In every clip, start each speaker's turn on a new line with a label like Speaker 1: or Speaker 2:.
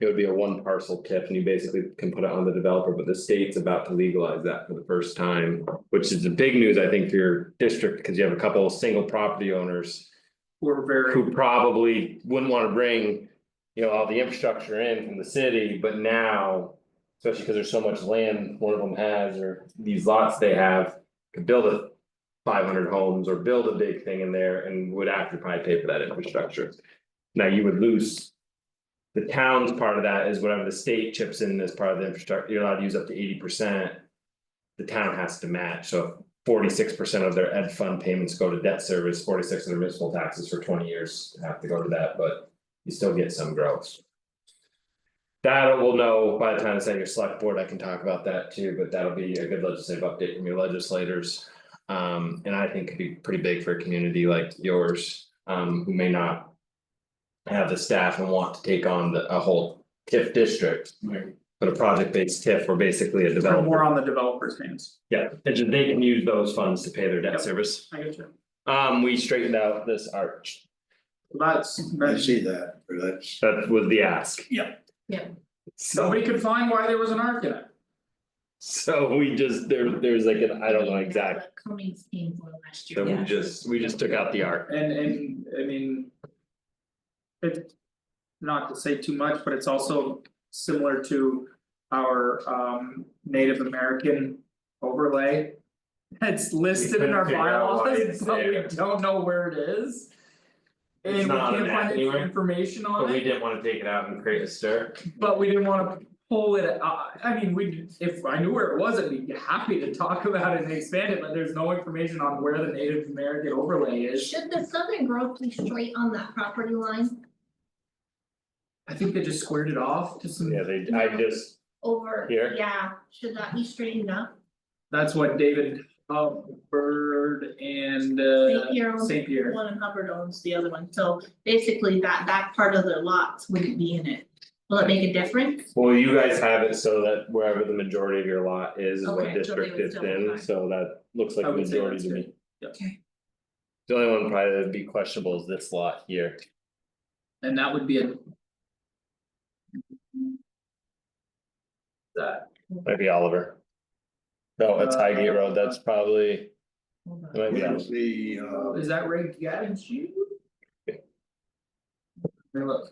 Speaker 1: It would be a one parcel TIF and you basically can put it on the developer, but the state's about to legalize that for the first time. Which is the big news, I think, for your district, because you have a couple of single property owners
Speaker 2: We're very,
Speaker 1: who probably wouldn't want to bring. You know, all the infrastructure in from the city, but now, especially because there's so much land one of them has or these lots they have. Could build a five hundred homes or build a big thing in there and would have to probably pay for that infrastructure. Now you would lose. The town's part of that is whatever the state chips in as part of the infrastructure, you're allowed to use up to eighty percent. The town has to match, so forty-six percent of their ed fund payments go to debt service, forty-six of their municipal taxes for twenty years have to go to that, but you still get some growth. That we'll know by the time it's at your select board, I can talk about that too, but that'll be a good legislative update from your legislators. Um, and I think could be pretty big for a community like yours, um, who may not. Have the staff and want to take on the, a whole TIF district, but a project-based TIF, where basically a
Speaker 2: we're
Speaker 1: developer.
Speaker 2: more on the developer's hands.
Speaker 1: Yeah, and then they can use those funds to pay their debt
Speaker 2: Yep.
Speaker 1: service.
Speaker 2: I get you.
Speaker 1: Um, we straightened out this arch.
Speaker 2: That's,
Speaker 3: I
Speaker 2: that's,
Speaker 3: see that, but that's,
Speaker 1: That was uh, the ask.
Speaker 2: Yep.
Speaker 4: Yep.
Speaker 1: So,
Speaker 2: nobody could find why there was an arc in it.
Speaker 1: so we just, there, there's like, an I don't know exactly.
Speaker 4: Cummings came for last
Speaker 1: So
Speaker 4: year.
Speaker 1: we just, we just took out the arc.
Speaker 2: And and I mean. It, not to say too much, but it's also similar to our um Native American overlay. It's listed in our
Speaker 1: couldn't figure out why
Speaker 2: bylaws,
Speaker 1: it's
Speaker 2: but we
Speaker 1: there.
Speaker 2: don't know where it is.
Speaker 1: It's
Speaker 2: And we
Speaker 1: not on
Speaker 2: can't
Speaker 1: that
Speaker 2: find any
Speaker 1: anywhere.
Speaker 2: information
Speaker 1: But
Speaker 2: on
Speaker 1: we
Speaker 2: it,
Speaker 1: didn't wanna take it out and create a stir.
Speaker 2: but we didn't wanna pull it, uh, I mean, we, if I knew where it was, I'd be happy to talk about it and expand it, but there's no information on where the Native American overlay is.
Speaker 4: Should the southern growth be straight on that property line
Speaker 2: I think they just squared it off to some
Speaker 1: Yeah, they, I just,
Speaker 4: over?
Speaker 1: Here?
Speaker 4: Yeah, should that be straightened up?
Speaker 2: That's what David Hubbard and uh
Speaker 4: St. Pierre owns
Speaker 2: St. Pierre.
Speaker 4: one and Hubbard owns the other one, so basically that that part of their lots wouldn't be in it. Will it make a difference?
Speaker 1: well, you guys have it so that wherever the majority of your lot is, is what
Speaker 4: Okay, so they
Speaker 1: district
Speaker 4: would
Speaker 1: it's
Speaker 4: still be
Speaker 1: in,
Speaker 4: fine.
Speaker 1: so that looks like
Speaker 2: I
Speaker 1: a
Speaker 2: would say
Speaker 1: majority
Speaker 2: that's
Speaker 1: to me.
Speaker 2: good. Yeah.
Speaker 4: Okay.
Speaker 1: The only one probably that'd be questionable is this lot here.
Speaker 2: And that would be a. That,
Speaker 1: Might be Oliver. No, it's Highgate Road, that's probably,
Speaker 4: Hold on.
Speaker 1: it might be Oliver.
Speaker 3: where's the,
Speaker 2: uh,
Speaker 3: uh,
Speaker 2: is that Ray Gavin's shoe? Let me look.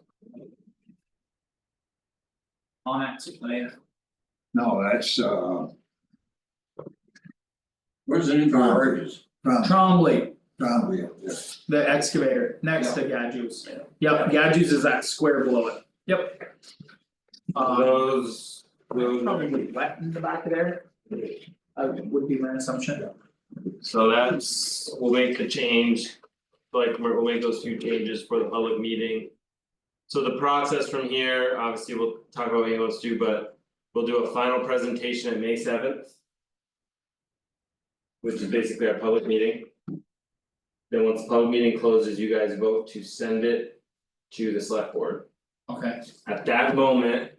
Speaker 2: On active plan.
Speaker 3: no, that's, uh,
Speaker 5: Where's the new garages?
Speaker 3: Trump,
Speaker 2: Trombley,
Speaker 3: Trump, yeah, yeah.
Speaker 2: the excavator, next to Gadju's. Yep, Gadju's is that square below it. Yep. Um,
Speaker 5: Those, those, are-
Speaker 2: probably wet in the back of there. Uh, would be my assumption.
Speaker 1: So that's, we'll make the change, like, we're- we'll make those few changes for the public meeting. So the process from here, obviously, we'll talk about what he wants to do, but we'll do a final presentation at May seventh. Which is basically our public meeting. Then once the public meeting closes, you guys vote to send it to the select board.
Speaker 2: Okay,
Speaker 1: At that moment.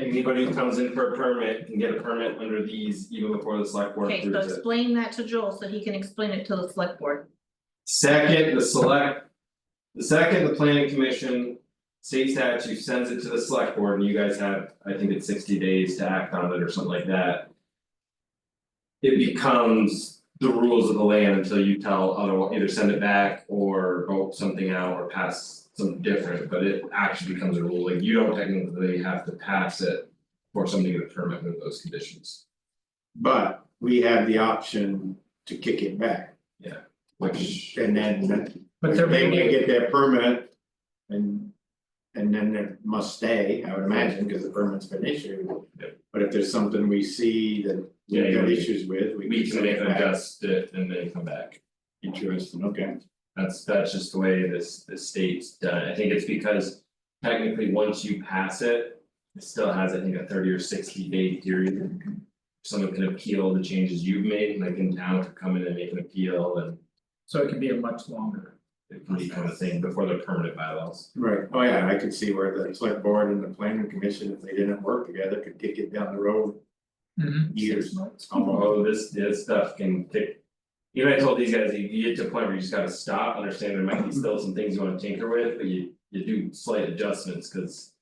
Speaker 1: Anybody who comes in for a permit can get a permit under these even before the select board
Speaker 4: Okay,
Speaker 1: approves it.
Speaker 4: so explain that to Joel so he can explain it to the select board.
Speaker 1: Second, the select. The second, the planning commission, state statute sends it to the select board and you guys have, I think it's sixty days to act on it or something like that. It becomes the rules of the land until you tell other, either send it back or vote something out or pass something different, but it actually becomes a rule, like you don't technically have to pass it. For somebody to get a permit with those conditions,
Speaker 5: but we have the option to kick it back,
Speaker 1: which.
Speaker 5: and then
Speaker 2: but they're
Speaker 5: they may
Speaker 2: making,
Speaker 5: get their permit. And and then it must stay, I would imagine, because the permit's been issued. But if there's something we see that
Speaker 1: Yeah,
Speaker 5: we've
Speaker 1: yeah,
Speaker 5: got
Speaker 1: we-
Speaker 5: issues with, we
Speaker 1: We
Speaker 5: can
Speaker 1: can
Speaker 5: send
Speaker 1: make
Speaker 5: it
Speaker 1: them
Speaker 5: back.
Speaker 1: adjust it and then come back.
Speaker 5: Interesting, okay.
Speaker 1: That's that's just the way this the state's done. it. I think it's because technically, once you pass it. It still has, I think, a thirty or sixty day period. Someone can appeal the changes you've made, like in town could come in and make an appeal and
Speaker 2: so it could be a much longer,
Speaker 1: it can be kind of thing before the permanent bylaws.
Speaker 5: Right, oh yeah, I could see where the select board and the planning commission, if they didn't work together, could kick it down the road
Speaker 2: Mm-hmm.
Speaker 5: years.
Speaker 1: Although Oh, this this stuff can kick. Even I told these guys, you you get to a point where you just gotta stop, understand there might be still some things you wanna tinker with, but you you do slight adjustments, cause.